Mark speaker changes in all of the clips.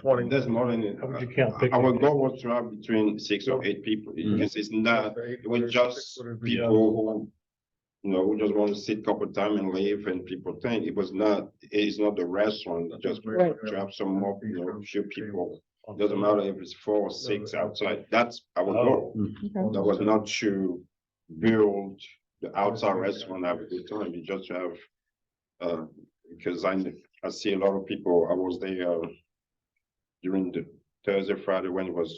Speaker 1: twenty.
Speaker 2: That's more than, it.
Speaker 3: How would you count
Speaker 2: I- uh, our
Speaker 3: picnic?
Speaker 2: goal was to have between six or eight people,
Speaker 4: Mhm.
Speaker 2: because it's not, it was just
Speaker 1: Yeah.
Speaker 2: people who. You know, who just want to sit couple time and leave and people think it was not, it's not the restaurant, just
Speaker 5: Right.
Speaker 2: to have some more, you know, few people. Doesn't matter if it's four or six outside, that's our
Speaker 3: Oh.
Speaker 2: goal.
Speaker 5: Okay.
Speaker 2: That was not to build the outside restaurant have a good time, you just have. Uh, because I, kn- I see a lot of people, I was there. uh, During the Thursday, Friday, when it was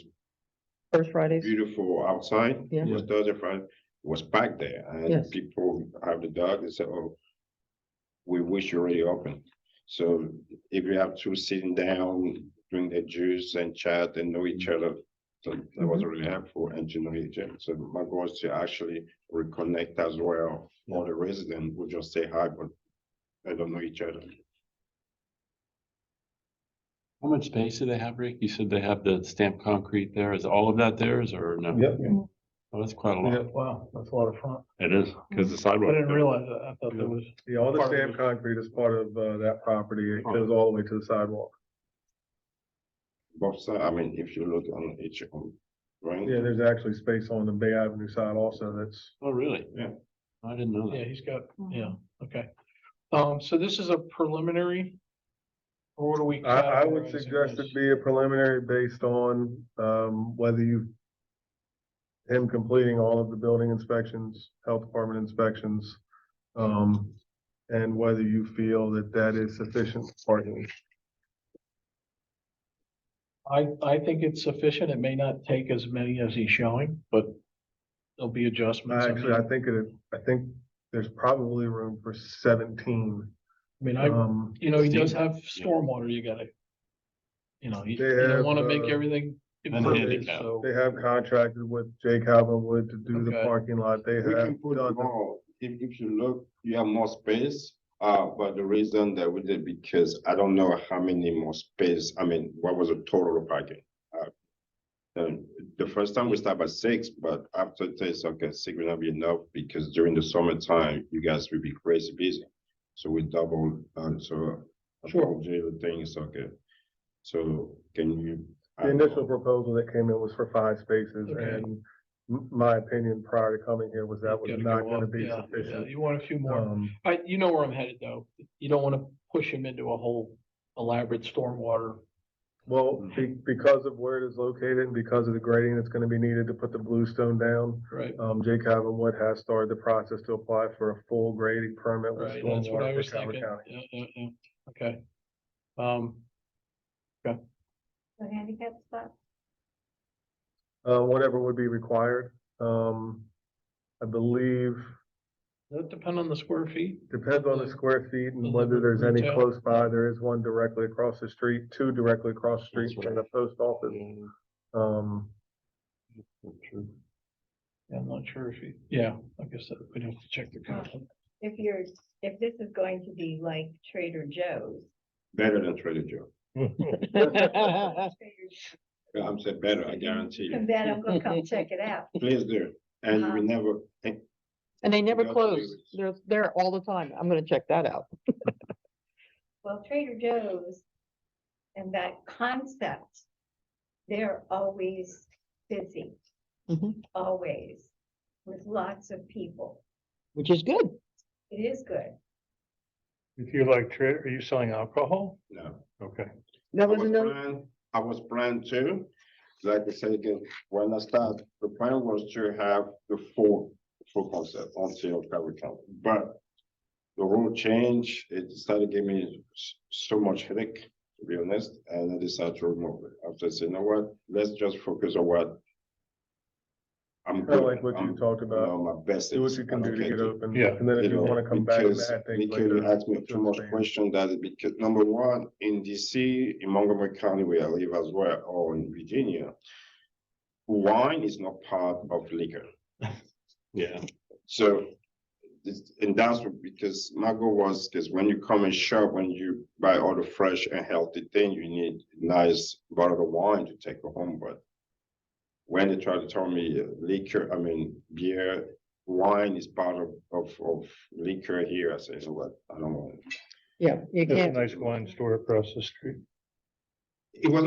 Speaker 5: First Fridays,
Speaker 2: beautiful outside,
Speaker 5: Yeah.
Speaker 2: it was Thursday, Friday, it was packed there, and
Speaker 5: Yes.
Speaker 2: people have the dog, they said, oh. We wish you already open, so if you have two sitting down, drink their juice and chat and know each other. So that
Speaker 5: Mm-hmm.
Speaker 2: was really helpful and to know each other, so my goal is to actually reconnect as well, all the residents will just say hi, but. They don't know each other,
Speaker 4: How much space do they have, Rick? You said they have the stamped concrete there. Is all of that theirs or no?
Speaker 3: Yep.
Speaker 4: Oh, that's quite a
Speaker 3: Yeah,
Speaker 4: lot.
Speaker 3: wow, that's a lot of fun.
Speaker 4: It is, because the
Speaker 3: I
Speaker 4: sidewalk.
Speaker 3: didn't realize that. I thought that was,
Speaker 1: Yeah, all the
Speaker 3: Part of
Speaker 1: sand
Speaker 3: it.
Speaker 1: concrete is part of, uh, that property. It goes all the way to the sidewalk.
Speaker 2: both sides, I mean, if you look on each, um, right?
Speaker 1: Yeah, there's actually space on the Bay Avenue side also that's.
Speaker 4: Oh, really?
Speaker 2: Yeah.
Speaker 4: I didn't know
Speaker 3: yeah,
Speaker 4: that.
Speaker 3: he's got, yeah, okay. Um, so this is a preliminary? Or what do we?
Speaker 1: I, I
Speaker 3: categorize
Speaker 1: would
Speaker 3: it
Speaker 1: suggest
Speaker 3: as?
Speaker 1: it be a preliminary based on, um, whether you. Him completing all of the building inspections, health department inspections, um, and whether you feel that that is sufficient parking.
Speaker 3: I, I think it's sufficient. It may not take as many as he's showing, but there'll be adjustments. I mean-
Speaker 1: Actually, I think it, I think there's probably room for seventeen.
Speaker 3: I mean, I,
Speaker 1: Um,
Speaker 3: you know, he does
Speaker 4: Steve?
Speaker 3: have stormwater, you gotta. You know, you
Speaker 1: They
Speaker 3: you don't
Speaker 1: have,
Speaker 3: wanna make
Speaker 1: uh,
Speaker 3: everything.
Speaker 4: And
Speaker 3: impervious,
Speaker 4: handicap.
Speaker 3: so-
Speaker 1: they have contracted with Jake Calvinwood to do the
Speaker 3: Okay.
Speaker 1: parking lot. They have.
Speaker 2: We can put
Speaker 1: done the-
Speaker 2: more, if, if you look, you have more space, uh, but the reason that we did, because I don't know how many more space, I mean, what was the total of parking? Uh, And the first time we start at six, but after this, okay, six will not be enough, because during the summertime, you guys will be crazy busy. So we double, uh, so. I
Speaker 3: Sure.
Speaker 2: told you the Thing is okay, so can you?
Speaker 1: The initial proposal that came in was for five spaces
Speaker 3: Okay.
Speaker 1: and m- my opinion prior to coming here was that was
Speaker 3: Gotta
Speaker 1: not
Speaker 3: go
Speaker 1: gonna
Speaker 3: up,
Speaker 1: be
Speaker 3: yeah, yeah,
Speaker 1: sufficient.
Speaker 3: You want a few more.
Speaker 1: Um,
Speaker 3: I, you know where I'm headed though. You don't wanna push him into a whole elaborate stormwater.
Speaker 1: well, be- because of where it is located and because of the grading that's gonna be needed to put the bluestone down,
Speaker 3: Right.
Speaker 1: um, Jake Havenwood has started the process to apply for a full grading permit with
Speaker 3: Right, that's what I
Speaker 1: stormwater
Speaker 3: was
Speaker 1: for Calvert
Speaker 3: thinking.
Speaker 1: County.
Speaker 3: Yeah, yeah, yeah, okay. Um,
Speaker 6: The handicap spot?
Speaker 1: Uh, whatever would be required, um, I believe,
Speaker 3: does it depend on the square feet?
Speaker 1: depends on the
Speaker 3: Yeah.
Speaker 1: square feet and
Speaker 3: And
Speaker 4: Mm-hmm.
Speaker 1: whether
Speaker 3: the
Speaker 1: there's any
Speaker 3: retail.
Speaker 1: close by. There is one directly across the street, two directly across the street
Speaker 4: That's
Speaker 1: from the
Speaker 4: right.
Speaker 1: post office. Um,
Speaker 3: Yeah, I'm not sure if he, yeah, I guess that we'd have to check the content.
Speaker 6: If you're, if this is going to be like Trader Joe's.
Speaker 2: Better than Trader Joe,
Speaker 6: Trader Joe's,
Speaker 2: Yeah, I'm saying better, I guarantee you.
Speaker 6: And then I'm gonna come check it out.
Speaker 2: Please do, and we
Speaker 6: Uh-huh.
Speaker 2: never, eh, and
Speaker 5: and they never
Speaker 2: Yeah, they
Speaker 5: close.
Speaker 2: was-
Speaker 5: They're there all the time. I'm gonna check that out.
Speaker 6: Well, Trader Joe's and that concept, they're always busy,
Speaker 5: Mhm.
Speaker 6: always, with lots of people.
Speaker 5: Which is good.
Speaker 6: It is good.
Speaker 3: If you like, are you selling alcohol?
Speaker 2: no.
Speaker 3: Okay.
Speaker 5: That
Speaker 2: I
Speaker 5: was
Speaker 2: was
Speaker 5: another,
Speaker 2: planned, I was planned to, like I said again, when I started, the plan was to have the full, full concept until Calvary County, but. The rule change, it started giving me s- so much headache, to be honest, and I decided to remove it. After I said, you know what, let's just focus on what. I'm
Speaker 1: kinda like
Speaker 2: good,
Speaker 1: what you
Speaker 2: I'm,
Speaker 1: talked
Speaker 2: you
Speaker 1: about,
Speaker 2: know, my best.
Speaker 1: see what
Speaker 2: is,
Speaker 1: you
Speaker 2: I
Speaker 1: can do
Speaker 2: don't
Speaker 1: to
Speaker 2: care
Speaker 1: get
Speaker 2: to-
Speaker 1: open,
Speaker 3: Yeah.
Speaker 1: and then if you
Speaker 2: know,
Speaker 1: wanna come back and
Speaker 2: because
Speaker 1: add things
Speaker 2: Nikhil
Speaker 1: later.
Speaker 2: asked me
Speaker 1: to
Speaker 2: too much
Speaker 1: expand.
Speaker 2: question that because number one, in DC, in Montgomery County where I live as well, or in Virginia. Wine is not part of liquor,
Speaker 4: Yeah.
Speaker 2: so. it's- And that's what- because my goal was, because when you come and shop, when you buy all the fresh and healthy thing, you need nice bottle of wine to take home, but. When they try to tell me uh, liquor, I mean beer, wine is part of of of liquor here, I say, you know what, I don't want. it."
Speaker 5: yeah, you can't.
Speaker 3: nice wine store across the street.
Speaker 2: It was